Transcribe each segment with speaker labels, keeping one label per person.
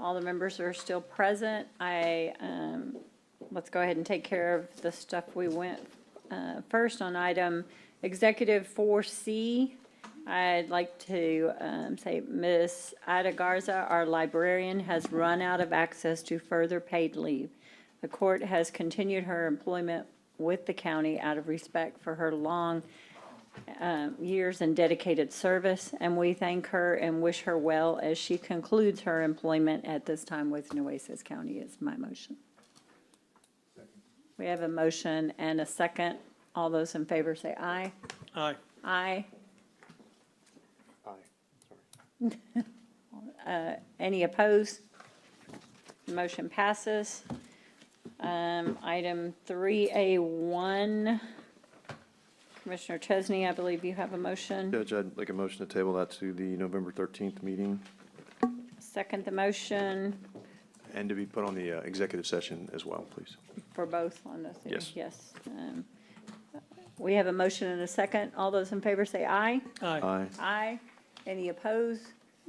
Speaker 1: All the members are still present. I, um, let's go ahead and take care of the stuff we went, uh, first on item executive four C. I'd like to, um, say Ms. Ida Garza, our librarian, has run out of access to further paid leave. The court has continued her employment with the county out of respect for her long um, years and dedicated service, and we thank her and wish her well as she concludes her employment at this time with Nueces County is my motion. We have a motion and a second. All those in favor say aye.
Speaker 2: Aye.
Speaker 1: Aye.
Speaker 3: Aye.
Speaker 1: Uh, Any opposed? Motion passes. Um, Item 3A1, Commissioner Chesney, I believe you have a motion.
Speaker 3: Judge, I'd like a motion to table that to the November 13th meeting
Speaker 1: Second the motion.
Speaker 3: and to be put on the uh, executive session as well, please.
Speaker 1: For both on those things?
Speaker 3: Yes.
Speaker 1: Yes. Um, We have a motion and a second. All those in favor say aye.
Speaker 2: Aye.
Speaker 3: Aye.
Speaker 1: Aye. Any opposed?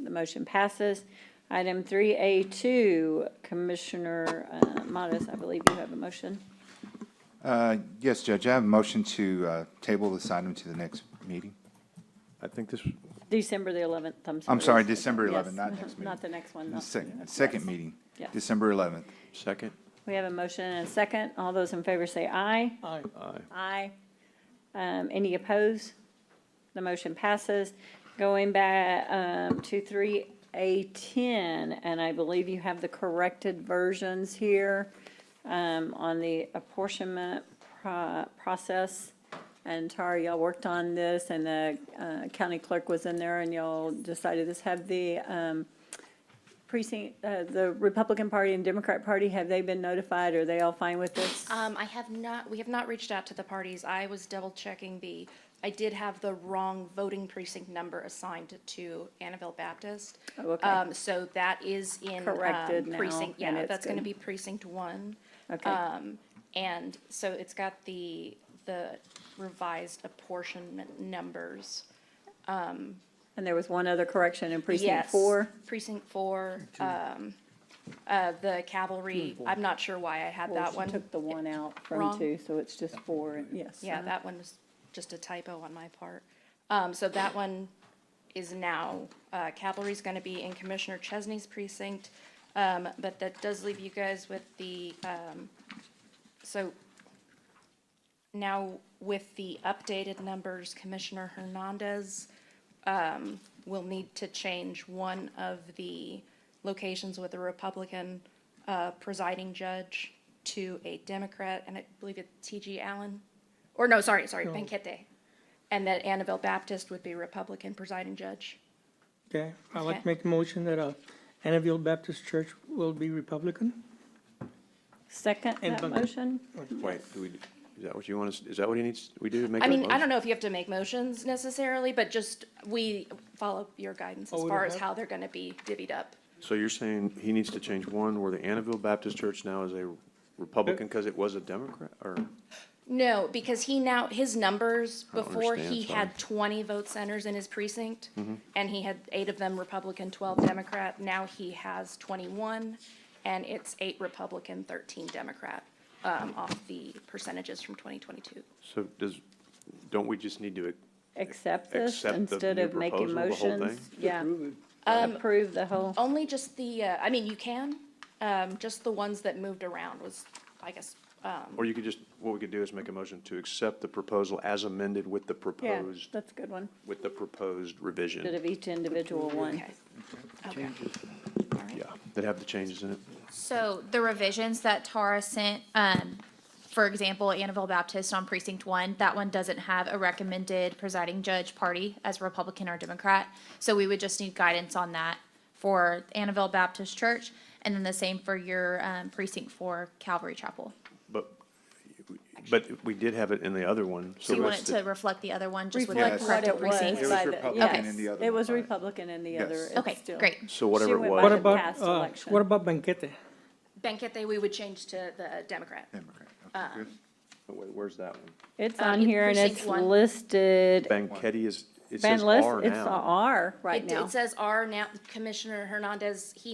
Speaker 1: The motion passes. Item 3A2, Commissioner uh, Modis, I believe you have a motion.
Speaker 4: Uh, Yes, Judge, I have a motion to uh, table this item to the next meeting.
Speaker 3: I think this,
Speaker 1: December the 11th, I'm sorry.
Speaker 4: I'm sorry, December 11th,
Speaker 1: Yes.
Speaker 4: not next meeting.
Speaker 1: Not the next one.
Speaker 4: The
Speaker 1: no.
Speaker 4: Second,
Speaker 1: Yes.
Speaker 4: second meeting,
Speaker 1: Yes.
Speaker 4: December 11th.
Speaker 3: second?
Speaker 1: We have a motion and a second. All those in favor say aye.
Speaker 2: Aye.
Speaker 3: Aye.
Speaker 1: Aye. Um, any opposed? The motion passes. Going back, um, to three A ten, and I believe you have the corrected versions here, um, on the apportionment pro- process. And Tara, y'all worked on this, and the, uh, county clerk was in there, and y'all decided this, have the, um, precinct, uh, the Republican Party and Democrat Party, have they been notified? Are they all fine with this?
Speaker 5: Um, I have not, we have not reached out to the parties. I was double checking the, I did have the wrong voting precinct number assigned to Annabelle Baptist.
Speaker 1: Oh, okay.
Speaker 5: Um, so that is in. um,
Speaker 1: Corrected now,
Speaker 5: precinct-
Speaker 1: and
Speaker 5: Yeah,
Speaker 1: it's
Speaker 5: that's gonna
Speaker 1: good.
Speaker 5: be precinct one.
Speaker 1: Okay.
Speaker 5: And so it's got the, the revised apportionment numbers.
Speaker 1: And there was one other correction in precinct
Speaker 5: Yes,
Speaker 1: four?
Speaker 5: Precinct four, um, uh, the cavalry, I'm not sure why I had
Speaker 1: Well,
Speaker 5: that
Speaker 1: she
Speaker 5: one.
Speaker 1: Took the one out from
Speaker 5: Wrong.
Speaker 1: two, so it's just four, and yes.
Speaker 5: Yeah,
Speaker 1: uh-huh.
Speaker 5: that one was just a typo on my part. Um, so that one is now, uh, cavalry's gonna be in Commissioner Chesney's precinct. Um, but that does leave you guys with the, um, so now with the updated numbers, Commissioner Hernandez, um, will need to change one of the locations with a Republican, uh, presiding judge to a Democrat, and I believe it's T.G. Allen or no, sorry, sorry, Benquete. And that Annabelle Baptist would be Republican presiding judge.
Speaker 2: Okay, I'd like to
Speaker 5: Okay.
Speaker 2: make a motion that, uh, Annabelle Baptist Church will be Republican.
Speaker 1: Second
Speaker 2: And
Speaker 1: that
Speaker 2: Bunker.
Speaker 1: motion?
Speaker 3: Wait, do we, is that what you want us, is that what he needs, we do to make
Speaker 5: I
Speaker 3: that
Speaker 5: mean, I
Speaker 3: motion?
Speaker 5: don't know if you have to make motions necessarily, but just, we follow your guidance
Speaker 2: Oh,
Speaker 5: as
Speaker 2: we
Speaker 5: far
Speaker 2: don't
Speaker 5: as
Speaker 2: have-
Speaker 5: how they're gonna be divvied up.
Speaker 3: So you're saying he needs to change one where the Annabelle Baptist Church now is a Republican because it was a Democrat or,
Speaker 5: No, because he now, his numbers,
Speaker 3: I don't
Speaker 5: before he
Speaker 3: understand, sorry. Mm-hmm.
Speaker 5: had twenty vote centers in his precinct, and he had eight of them Republican, twelve Democrat, now he has twenty-one, and it's eight Republican, thirteen Democrat, um, off the percentages from twenty twenty-two.
Speaker 3: so does, don't we just need to,
Speaker 1: Accept this
Speaker 3: Accept the
Speaker 1: instead
Speaker 3: new
Speaker 1: of making
Speaker 3: proposal, the whole
Speaker 1: motions? Yeah, Uh, approve the whole,
Speaker 5: Only just the, uh, I mean, you can, um, just the ones that moved around was, I guess,
Speaker 3: or you could just, what we could do is make a motion to accept the proposal as amended with the
Speaker 1: yeah,
Speaker 3: proposed,
Speaker 1: that's a good one.
Speaker 3: with the proposed
Speaker 1: Instead
Speaker 3: revision.
Speaker 1: of each individual one.
Speaker 5: okay. Okay. All right.
Speaker 3: Yeah, that have the changes in it.
Speaker 6: So the revisions that Tara sent, um, for example, Annabelle Baptist on precinct one, that one doesn't have a recommended presiding judge party as Republican or Democrat. So we would just need guidance on that for Annabelle Baptist Church, and then the same for your, um, precinct four Calvary Chapel.
Speaker 3: But, but we did have it in the other one, so
Speaker 6: So you want
Speaker 3: that's
Speaker 6: it to
Speaker 3: the,
Speaker 6: reflect the other one, just with the
Speaker 1: Reflect
Speaker 4: Yes.
Speaker 1: what
Speaker 6: corrected
Speaker 1: it was
Speaker 6: precinct?
Speaker 4: It was
Speaker 1: by the,
Speaker 4: Republican
Speaker 1: yes,
Speaker 4: in the other
Speaker 1: it
Speaker 4: one,
Speaker 1: was
Speaker 4: right?
Speaker 1: Republican in the other.
Speaker 4: Yes.
Speaker 1: it's
Speaker 6: Okay,
Speaker 1: still-
Speaker 6: great.
Speaker 3: so whatever
Speaker 1: went
Speaker 3: it
Speaker 1: by
Speaker 3: was.
Speaker 2: What
Speaker 1: the
Speaker 2: about,
Speaker 1: past
Speaker 2: uh,
Speaker 1: election.
Speaker 2: what about Benquete?
Speaker 5: Benquete, we would change to the Democrat.
Speaker 4: Democrat.
Speaker 1: Uh,
Speaker 4: Okay, good.
Speaker 3: Wait, Where's that one?
Speaker 1: It's
Speaker 6: Um,
Speaker 1: on
Speaker 6: in
Speaker 1: here and
Speaker 6: precinct
Speaker 1: it's
Speaker 6: one.
Speaker 1: listed,
Speaker 3: Banquetti is, it
Speaker 1: Ben
Speaker 3: says
Speaker 1: list,
Speaker 3: R
Speaker 1: it's a
Speaker 3: now.
Speaker 1: R right
Speaker 5: It
Speaker 1: now.
Speaker 5: it says R now, Commissioner Hernandez, he